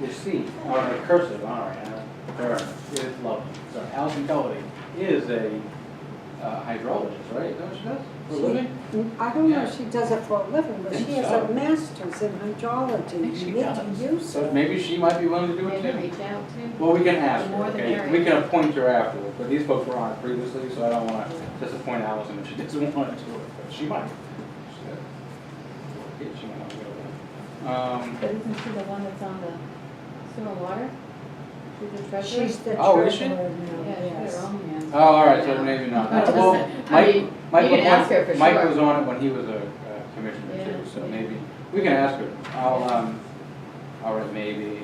the C, or the cursive, all right, I- there, it's lovely. So Allison Doherty is a uh, hydrologist, right, is that what she does, for a She- living? I don't know if she does it for a living, but she has Yeah. a master's in hydrology. think she You need does. to use So it. maybe she might be willing to do it Maybe too. reach out to. Well, we can ask The her, more the okay, merrier. we can appoint her afterwards, but these folks were on it previously, so I don't wanna disappoint Allison if she doesn't want to do it, but she might. She- Yeah, she might not be able to. Um, But isn't she the one that's on the sewer water? She's the treasurer? She's the Oh, is she? treasurer now, Yeah, yes. she's their own man. Oh, all right, so maybe not. Listen, Well, I Mike, mean, Mike you was can ask her on, for Mike sure. was on it when he was a uh, commissioner too, Yeah, so yeah. maybe, we can ask her. I'll, um, all right, maybe. Yeah,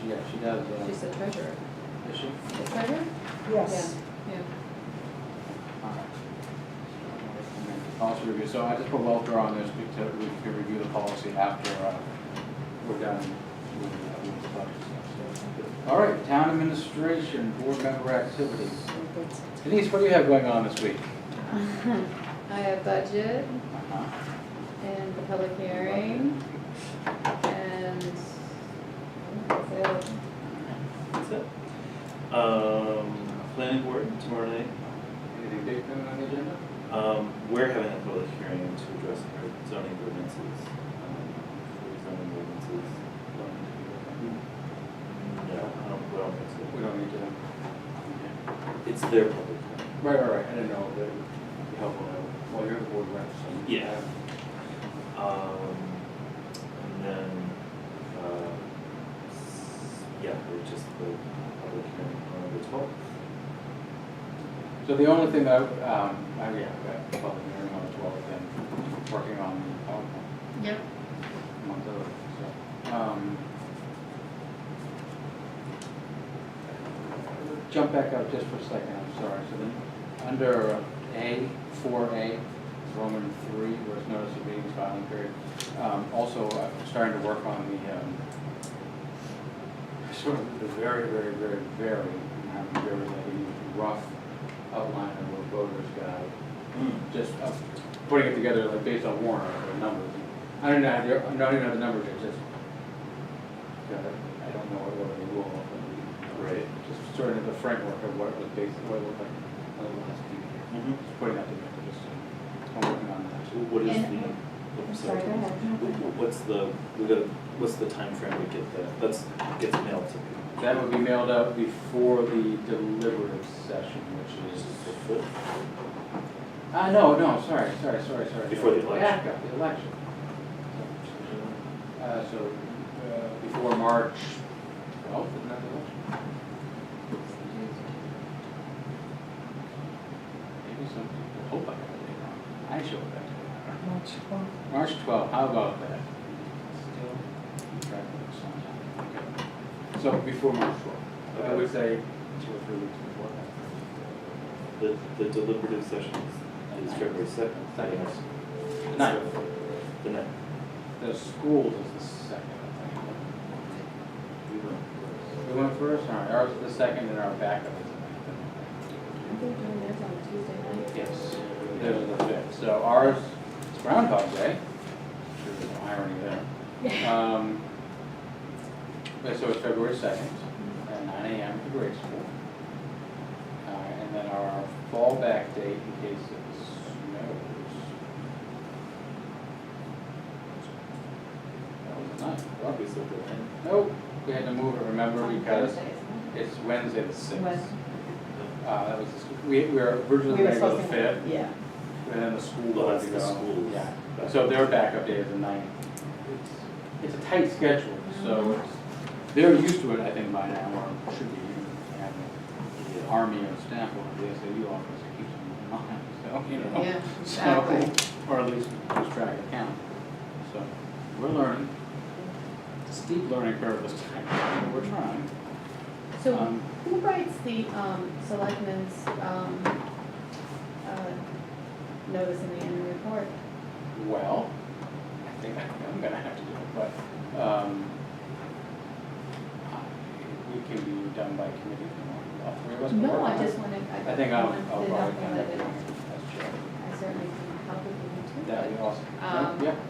she, yeah, she does, uh, She's the treasurer. is she? The treasurer? Yes. Yeah. All right. Policy review, so I just put welfare on this because we could review the policy after, uh, we're done with, uh, with the budget stuff, so. All right, town administration, board member activities. That's- Denise, what do you have going on this week? I have budget Uh-huh. and the public hearing and. that's it. That's it. Um, planning board tomorrow night. Anything big coming on the agenda? Um, we're having a public hearing to address our zoning ordinances. um, for Zoning ordinances. Hmm. No, I don't, we don't think We don't need to. so. It's their public hearing. Right, right, right, I didn't know, that it would be helpful, to- well, you're the board rep, so. Yeah. Um, and then, uh, s- yeah, it's just the public hearing on November twelfth. So the only thing that, um, I, yeah, I've got public hearing on the twelfth and working on um, the PowerPoint, Yep. among other things, so. um, Jump back up just for a second, I'm sorry, so then, under A, four A, Roman three, where it's notice of meetings filing period. Um, also, I'm starting to work on the, um, sort of the very, very, very, very, um, very, like, rough outline of a voter's guide Mm, just uh, putting it together like based on warrant article numbers. I don't know, how the- I don't even know the numbers, it's just, you know, I don't know what what they rule of. but we- Right. Just sort of the framework of what it was based, what it looked like on the last few years. Mm-hmm. Just putting that together, just, uh, I'm working on that. What is the? And- oh, I'm sorry, go ahead. Wh- wh- What's the, we gotta, what's the timeframe we get that, that's, gets mailed to people? That would be mailed out before the deliberative session, which is, Is it the fifth? ah, no, no, sorry, sorry, sorry, sorry. Before the election. Back up, the election. Uh, so, uh, before March twelfth, isn't that the election? Maybe some people hope I got the date wrong. I showed that. to March 12th. them. March twelfth, how about that? Still. try to put this on time. Okay. So before March twelfth, I would say two or three weeks before that. The, the deliberative session is- is February second. Second. Nine. Ninth. The ninth. The school is the second, I think. We went first, all right, ours is the second and our backup is the I think doing this on Tuesday night. ninth. Yes. Theirs is the fifth, so ours is Groundhog Day. Sure, there's no irony there. Um, but so it's February second, at nine AM at the grade school. Uh, and then our fallback date in case it snows. That was the ninth. Probably so, the ninth. Nope, we had to move it, remember, On because Thursday, isn't it's Wednesday the it? sixth. When- Uh, that was, the sc- we, we were originally We were going to go supposed the to. fifth, Yeah. and then the school Well, had that's to the go. school's Yeah. backup. So their backup day is the ninth. It's a tight schedule, so it's, Mm-hmm. they're used to it, I think, by now, or should be, they have an Yeah. army of staff over the SAU office that keeps them in line, so, you know. Yeah, So, exactly. Or at least lose track of count. So, we're learning. Steep learning curve this time, but we're trying. So Um, who writes the um, selectmen's um, uh, notice in the annual report? Well, I think I'm gonna have to do it, but, um, I- we can be done by committee if you want, all three of us can No, work on I it. just wanted, I. I think I'll, wanted to I'll know probably kind that of, it- that's true. I certainly can help if you need to. That'd be awesome. Um, Yeah,